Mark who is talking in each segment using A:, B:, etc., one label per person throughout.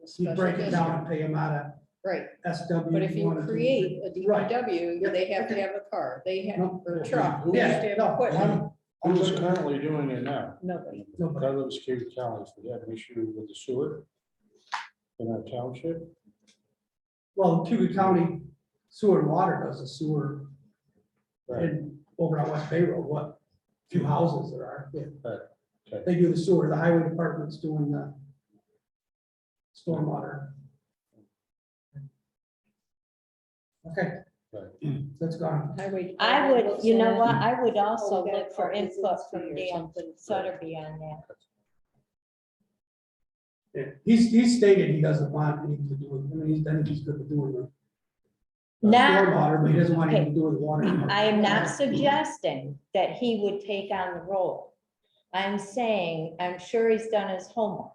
A: You
B: special
A: break it down
B: district.
A: and pay them out
B: Right,
A: of SW.
B: but if you
A: wanna do-
B: create a
A: Right.
B: DPW, they have to have a car, they have,
A: No.
B: or a truck, they have to
A: Yeah,
B: have
A: no.
B: equipment,
A: I'm- I'm
C: Who's
A: with-
C: currently doing it now?
B: nobody.
A: no, but
C: That lives Cave County, so we have an issue with the sewer in our township.
A: Well, Cuba County Sewer and Water does a sewer
C: Right,
A: in, over on West Bay Road, what, two houses there are. yeah.
C: Right, okay.
A: They do the sewer, the highway department's doing the stormwater. Okay. That's gone.
B: Highway
D: I
B: department
D: would,
B: looks
D: you know
B: at it.
D: what, I would also
B: we got
D: look for
B: copies of
D: input
B: this
D: from
B: here or
D: Dan Sutterby on that.
A: Yeah, He's, he's stated he doesn't want anything to do with, I mean, he's done, he's good with doing the the
D: Now,
A: stormwater, but he doesn't want anything to do with water.
D: I am not suggesting that he would take on the role. I'm saying, I'm sure he's done his homework.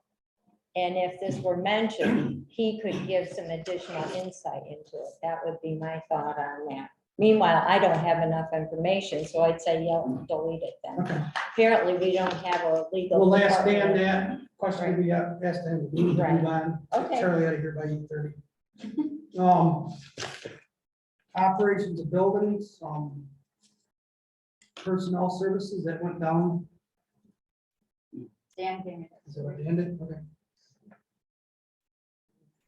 D: And if this were mentioned, he could give some additional insight into it. That would be my thought on that. Meanwhile, I don't have enough information, so I'd say, yeah, delete it then.
A: Okay,
D: Apparently, we don't have a legal.
A: we'll ask Dan
D: department.
A: that question we have, asked him, we need to
D: Right.
A: move on.
D: Okay.
A: Charlie out of here by eight thirty. Um, operations of buildings, um, personnel services that went down,
E: Dan gave me that
A: is that where it ended? Okay.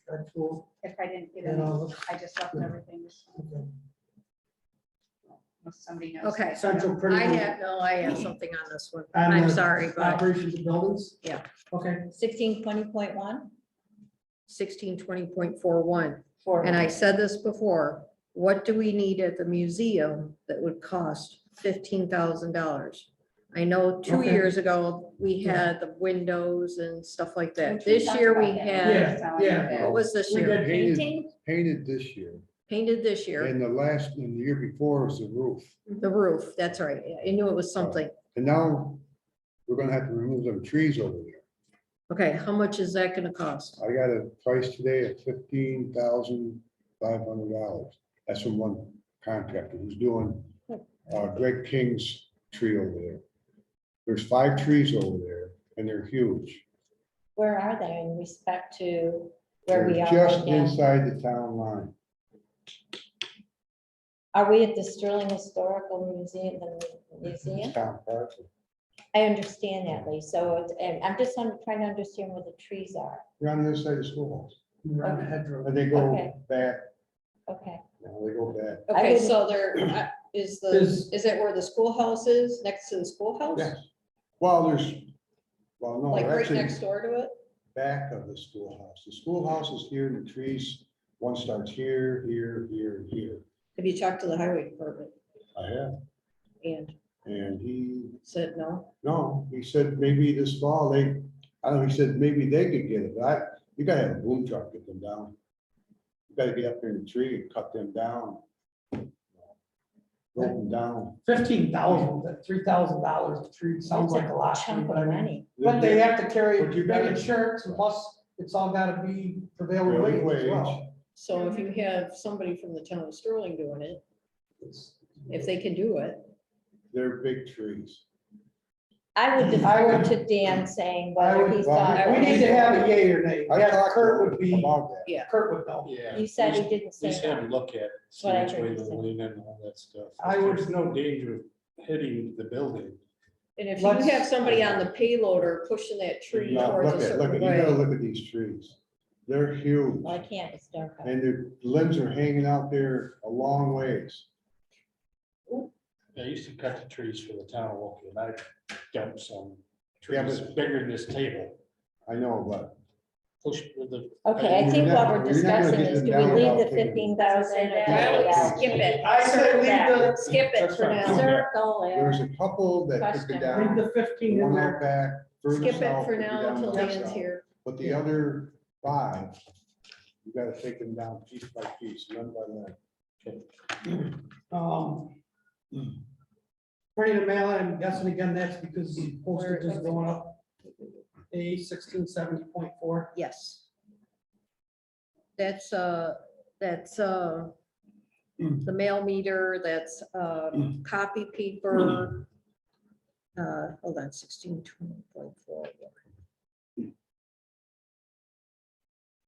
A: That's cool.
E: If I didn't get
A: And,
E: it,
A: uh,
E: I just left everything,
A: okay.
E: unless somebody knows.
B: Okay,
A: Central
B: I
A: critical.
B: have, no, I have something on this one,
A: On
B: I'm
A: the
B: sorry, but
A: Operations of buildings?
B: Yeah.
A: Okay,
D: Sixteen twenty point one?
B: sixteen twenty point four one.
D: For
B: And I said this before, what do we need at the museum that would cost fifteen thousand dollars? I know two
A: Okay.
B: years ago, we had the windows and stuff like that. This year we had,
A: Yeah, yeah.
B: what was this
A: We
B: year?
A: did.
D: Painting?
C: Painted this year,
B: Painted this year,
C: and the last, and the year before was the roof.
B: the roof, that's right. I knew it was something.
C: And now we're gonna have to remove them trees over there.
B: Okay, how much is that gonna cost?
C: I got a price today of fifteen thousand five hundred dollars. That's from one contractor who's doing uh, Greg King's tree over there. There's five trees over there, and they're huge.
D: Where are they in respect to where we
C: They're
D: are?
C: Just
D: right now?
C: inside the town line.
D: Are we at the Sterling Historical Museum, the museum?
C: Town park.
D: I understand that, Lee, so, it's- and I'm just un- trying to understand where the trees are.
C: They're on the other side of the schoolhouse.
A: around the hedgerow.
C: And they go
D: Okay.
C: back,
D: Okay,
C: now they go back.
B: Okay,
D: wouldn't-
B: so there, uh, is the,
A: Is-
B: is that where the schoolhouse is, next to the schoolhouse?
C: Yes. Well, there's, well, no,
B: Oh. Like right
C: that's
B: next
C: in
B: door to it?
C: back of the schoolhouse. The schoolhouse is here and the trees, one starts here, here, here, and here.
B: Have you talked to the highway department
C: I have,
B: and
C: and he,
B: said no?
C: no, he said maybe this fall, they, I don't know, he said maybe they could get it. I, you gotta have a boom truck get them down. You gotta get up there in the tree and cut them down. Rope them down.
A: Fifteen thousand, three thousand dollars a tree sounds like a lot, to me,
D: chunk
A: but
D: of
A: I mean,
D: money.
A: but they have to carry
C: But you
A: big
C: gotta-
A: insurance, and plus it's all gotta be prevailing
C: Prevailing
A: wage as
C: wage.
A: well.
B: So if you have somebody from the town of Sterling doing it,
A: It's-
B: if they can do it,
C: They're big trees.
D: I would
A: I would-
D: defer to Dan saying
A: I
D: whether
A: would-
D: he's
C: well,
D: done.
A: We need to have a yay or nay,
C: I
A: yeah,
C: talked
A: Kurt would be,
C: About that.
A: Kurt would know.
F: Yeah.
D: You said he didn't say
F: Just have
D: that.
F: a look at, it, see
D: What I
F: which
D: heard
F: way
D: you
F: the
D: say.
F: lean and all that stuff.
A: I would-
F: There's no danger of hitting the building.
B: and if you
A: Let's-
B: have somebody on the payloader pushing that tree
C: Now,
B: towards
C: Look
B: a
C: at, look at,
B: certain
C: you gotta
B: way.
C: look at these trees. They're huge
D: Well, I can't, it's dark. out.
C: and their limbs are hanging out there a long ways.
F: I used to cut the trees for the town of Woking, and I dumped some
C: Yeah,
F: trees bigger than this table.
C: I know, but
F: Push with the,
D: Okay, I
C: You're
D: think
C: not-
D: what we're
C: you're not gonna
D: discussing
C: get
D: is,
C: them
D: do we
C: down
D: leave the
C: without taking-
D: fifteen thousand?
C: I would skip
D: Oh, it.
A: I said leave the,
D: Skip it
F: That's
D: for
F: fine.
D: now. Circle
C: there's a couple that took
D: Question.
C: it
A: leave
C: down.
A: the fifteen in
C: One
A: there,
C: out back. further
B: Skip it
C: south,
B: for
C: took it
B: now
C: down
B: until
C: more
B: Dan's
C: south.
B: here.
C: But the other five, you gotta take them down piece by piece, limb by limb.
A: um.
C: Hmm.
A: Pretty to mail, I'm guessing again, that's because postage is going up. A sixteen seventy point four,
B: Yes. That's, uh, that's, uh, the mail meter, that's, uh, copy paper. Uh, hold on, sixteen twenty point four.